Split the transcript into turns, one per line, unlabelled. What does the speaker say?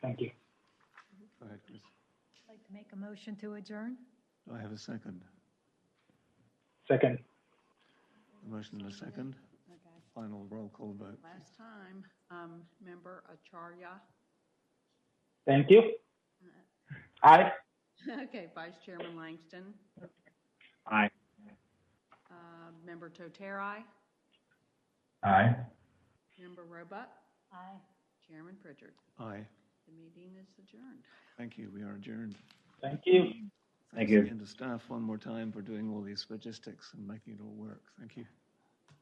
Thank you.
Go ahead, Chris.
I'd like to make a motion to adjourn.
Do I have a second?
Second,
A motion and a second?
Okay.
Final roll call vote.
Last time, um, member Acharya,
thank you. Aye.
okay, Vice Chairman Langston,
Aye.
uh, member Toterai,
Aye.
member Roebuck,
Aye.
Chairman Pritchard.
Aye.
The meeting is adjourned.
Thank you. We are adjourned.
Thank you. Thank
Thanks
you.
again to staff one more time for doing all these logistics and making it all work. Thank you.